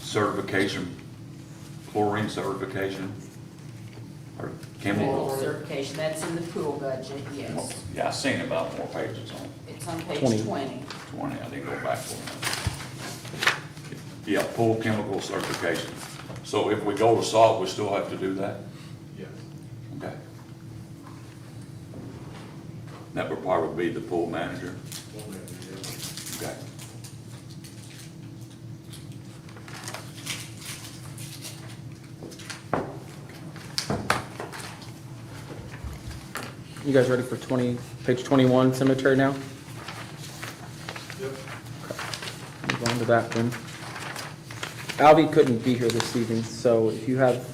certification, chlorine certification, or Pool chemical. certification, that's in the pool budget, yes. Yeah, I seen about more pages on It's on Twenty. page twenty. twenty, I didn't go back for it. Yeah, pool chemical certification. So if we go to salt, we still have to do that? Yes. Okay. That would probably be the pool manager. Okay. You guys ready for twenty, page twenty-one cemetery now? Yep. Move on to that one. Alvy couldn't be here this evening, so if you have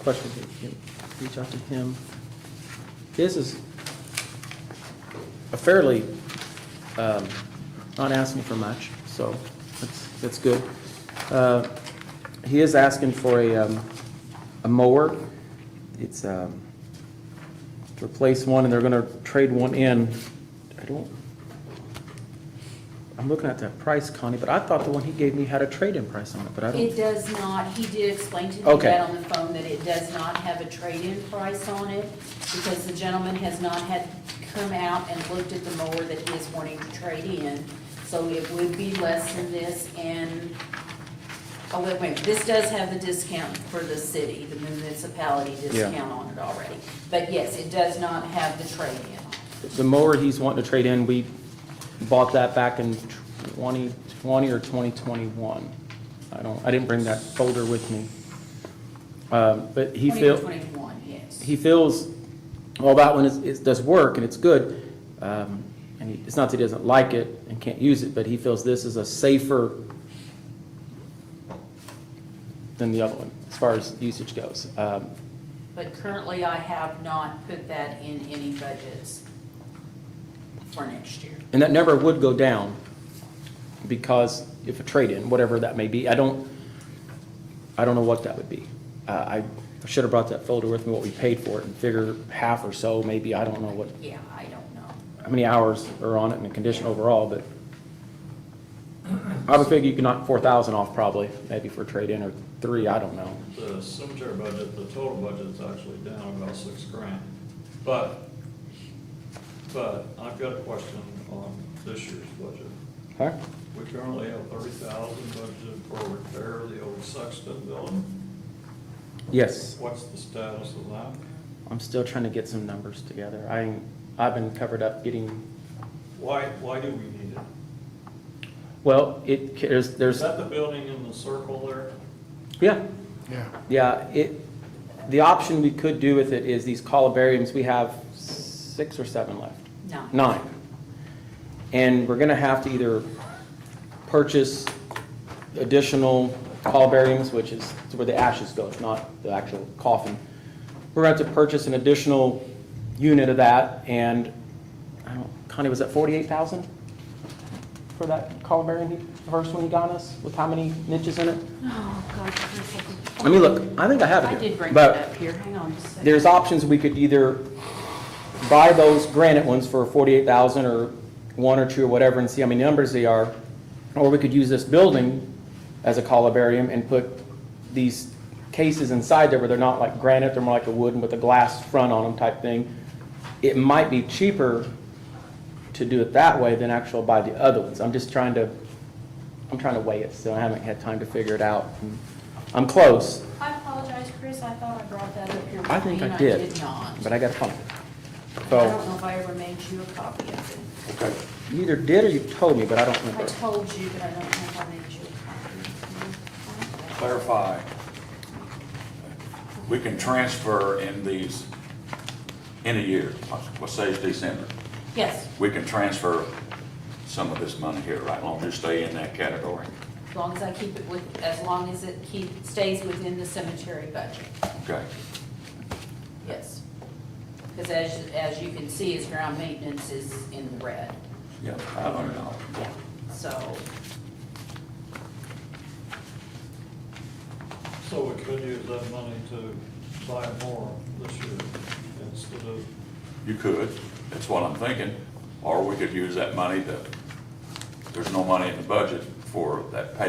questions, you can reach out to him. His is a fairly, um, not asking for much, so that's, that's good. Uh, He is asking for a, um, a mower. It's, um, to replace one, and they're gonna trade one in. I don't, I'm looking at that price, Connie, but I thought the one he gave me had a trade-in price on it, but I It don't. does not, he did explain to me Okay. that on the phone, that it does not have a trade-in price on it, because the gentleman has not had come out and looked at the mower that he is wanting to trade in, so it would be less than this, and, oh, wait, wait, this does have the discount for the city, the municipality Yeah. discount on it already, but yes, it does not have the trade-in on it. The mower he's wanting to trade in, we bought that back in 2020 or 2021. I don't, I didn't bring that folder with me. Um, But he feels. 2021, yes. he feels, well, that one is, is, does work and it's good. Um, and he, it's not that he doesn't like it and can't use it, but he feels this is a safer than the other one, as far as usage goes. Um, But currently, I have not put that in any budgets for next year. and that number would go down because if a trade-in, whatever that may be, I don't, I don't know what that would be. Uh, I should have brought that folder with me, what we paid for it, and figure half or so, maybe, I don't know what, Yeah, I don't know. how many hours are on it and the condition overall, but I would figure you could knock four thousand off probably, maybe for trade-in or three, I don't know. The cemetery budget, the total budget's actually down about six grand. But, but I've got a question on this year's budget. Huh? We currently have thirty thousand budgeted for repair of the old Sexton building. Yes, What's the status of that? I'm still trying to get some numbers together. I, I've been covered up getting, Why, why do we need it? well, it, there's, Is there's, that the building in the circle there? yeah. Yeah. Yeah, it, the option we could do with it is these columbariums, we have six or seven left. Nine. nine. And we're gonna have to either purchase additional columbariums, which is where the ashes go, it's not the actual coffin. We're gonna have to purchase an additional unit of that, and, I don't, Connie, was that forty-eight thousand? For that columbarium, he- the first one he got us, with how many niches in it? Oh, God. Let me look, I think I have it I here. did bring it But- up here, hang on just a second. there's options, we could either buy those granite ones for forty-eight thousand or one or two or whatever and see how many numbers they are. Or we could use this building as a columbarium and put these cases inside there where they're not like granite, they're more like a wooden with a glass front on them type thing. It might be cheaper to do it that way than actual buy the other ones. I'm just trying to, I'm trying to weigh it, so I haven't had time to figure it out. I'm close, I apologize, Chris, I thought I brought that up here. with I think me, and I did. I did not. but I gotta find it. I So- don't know if I ever made you a copy of it. Okay. You either did or you told me, but I don't I remember. told you, but I don't know if I made you a copy. clarify, we can transfer in these, in a year, let's say it's December, Yes, we can transfer some of this money here, right, long as you stay in that category, as long as I keep it with, as long as it keep, stays within the cemetery budget. okay? Yes. Because as, as you can see, his ground maintenance is in the red, Yeah, five hundred dollars. so, So we could use that money to buy more this year instead of, You could, that's what I'm thinking, or we could use that money to, there's no money in the budget for that pay